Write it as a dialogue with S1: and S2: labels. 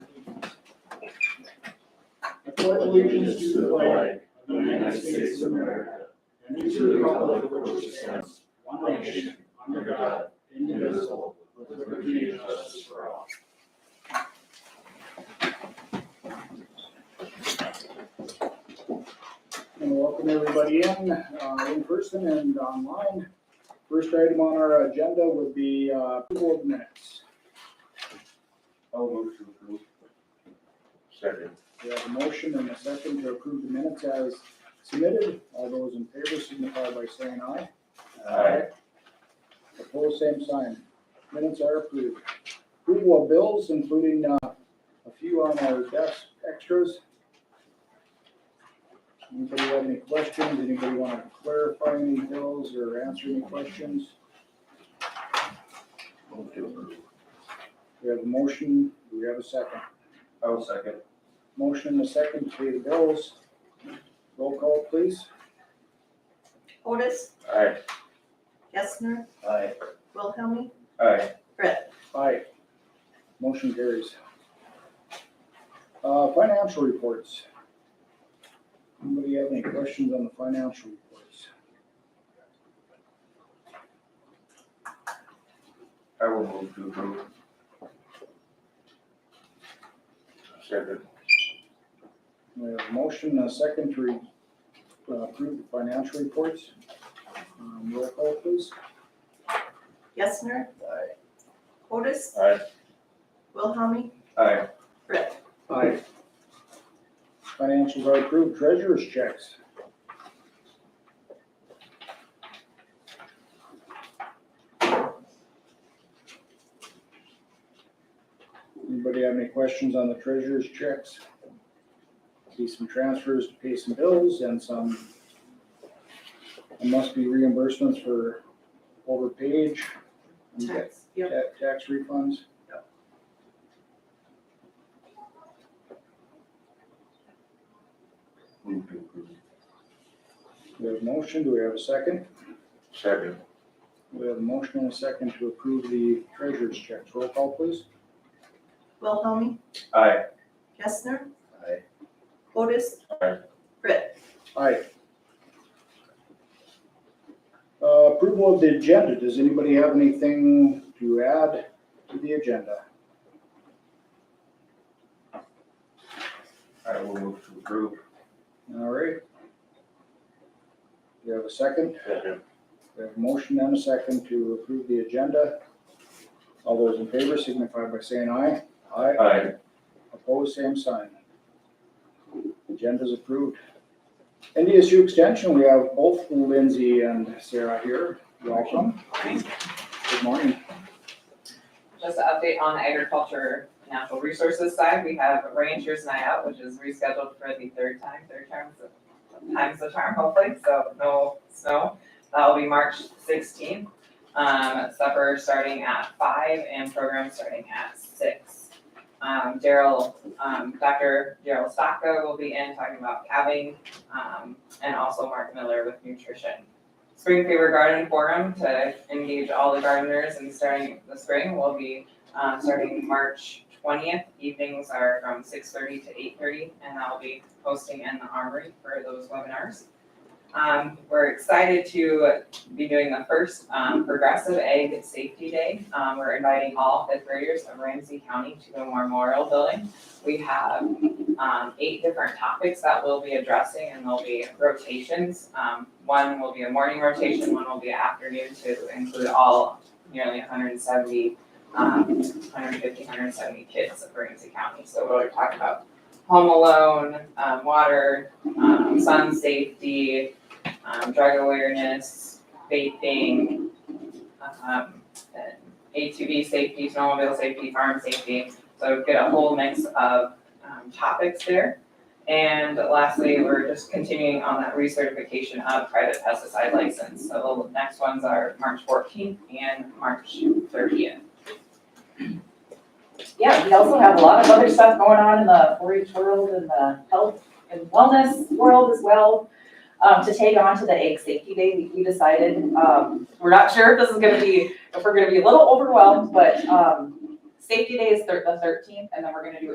S1: pledge allegiance to the flag of the United States of America and to the republic for which it stands, one nation, under God, indivisible, with liberty and justice for all. And welcome everybody in, uh, in person and online. First item on our agenda would be uh, approval of minutes.
S2: I'll move to approve. Second.
S1: We have a motion and a second to approve the minutes as submitted. All those in favor signify by saying aye.
S2: Aye.
S1: Opposed, same sign. Minutes are approved. Approval of bills, including uh, a few on our desk extras. Anybody have any questions? Anybody want to clarify any bills or answer any questions?
S2: Move to approve.
S1: We have a motion. Do we have a second?
S2: I'll second.
S1: Motion and a second to pay the bills. Roll call, please.
S3: Otis,
S2: Aye.
S3: Gessner,
S2: Aye.
S3: Wilhelmie,
S2: Aye.
S1: Aye. Motion carries. Uh, financial reports. Anybody have any questions on the financial reports?
S2: I will move to approve. Second.
S1: We have a motion, and a second to re- uh, approve the financial reports. Um, roll call please.
S3: Gessner.
S2: Aye.
S3: Otis,
S2: Aye.
S3: Wilhelmie,
S2: Aye.
S3: Brett.
S1: Aye. Financials are approved, treasurer's checks. Anybody have any questions on the treasurer's checks? See some transfers to pay some bills and some, there must be reimbursements for overpage. and ta-
S3: Tax, yep.
S1: ta- Tax refunds.
S2: Move to approve.
S1: We have a motion, do we have a second?
S2: Second.
S1: We have a motion and a second to approve the treasurer's checks. Roll call, please.
S3: Wilhelmie,
S2: Aye.
S3: Gessner,
S2: Aye.
S3: Otis.
S2: Aye.
S3: Brett.
S1: Aye. Uh, Approval of the agenda. Does anybody have anything to add to the agenda?
S2: I will move to approve.
S1: All right. Do you have a second?
S2: Second.
S1: We have a motion and a second to approve the agenda. All those in favor signify by saying aye. Aye.
S2: Aye.
S1: Opposed, same sign. Agenda's approved. NDSU Extension, we have both Lindsay and Sarah here. Welcome. Good morning.
S4: Just an update on the agriculture, and natural resources side, we have Rangers Night Out, which is rescheduled for the third time, third time's the, time's the charm hopefully, so no snow. That'll be March sixteenth. Um, supper starting at five and program starting at six. Um, Daryl, um, Dr. Daryl Stocka will be in talking about calving, um, and also Mark Miller with nutrition. Spring Fever Garden Forum to engage all the gardeners and starting the spring will be um, starting March twentieth. Evenings are from six thirty to eight thirty and I'll be hosting in the armory for those webinars. Um, we're excited to be doing the first um, Progressive Egg Safety Day. Um, we're inviting all fifth graders of Ramsey County to the Memorial Building. We have um, eight different topics that we'll be addressing and there'll be rotations. Um, one will be a morning rotation, one will be an afternoon to include all nearly hundred and seventy, um, 150, 170 kids of Ramsey County. So we'll talk about home alone, um, water, um, sun safety, um, drug awareness, vaping, um, and ATV safety, snowmobile safety, farm safety. So get a whole mix of um, topics there. And lastly, we're just continuing on that recertification of private pesticide license. So the next ones are March fourteenth and March thirtieth.
S5: Yeah, we also have a lot of other stuff going on in the four-H world and the health and wellness world as well. Um, to take on to the egg safety day, we- we decided, um, we're not sure if this is gonna be, if we're gonna be a little overwhelmed, but, um, safety day is thir- the thirteenth, and then we're gonna do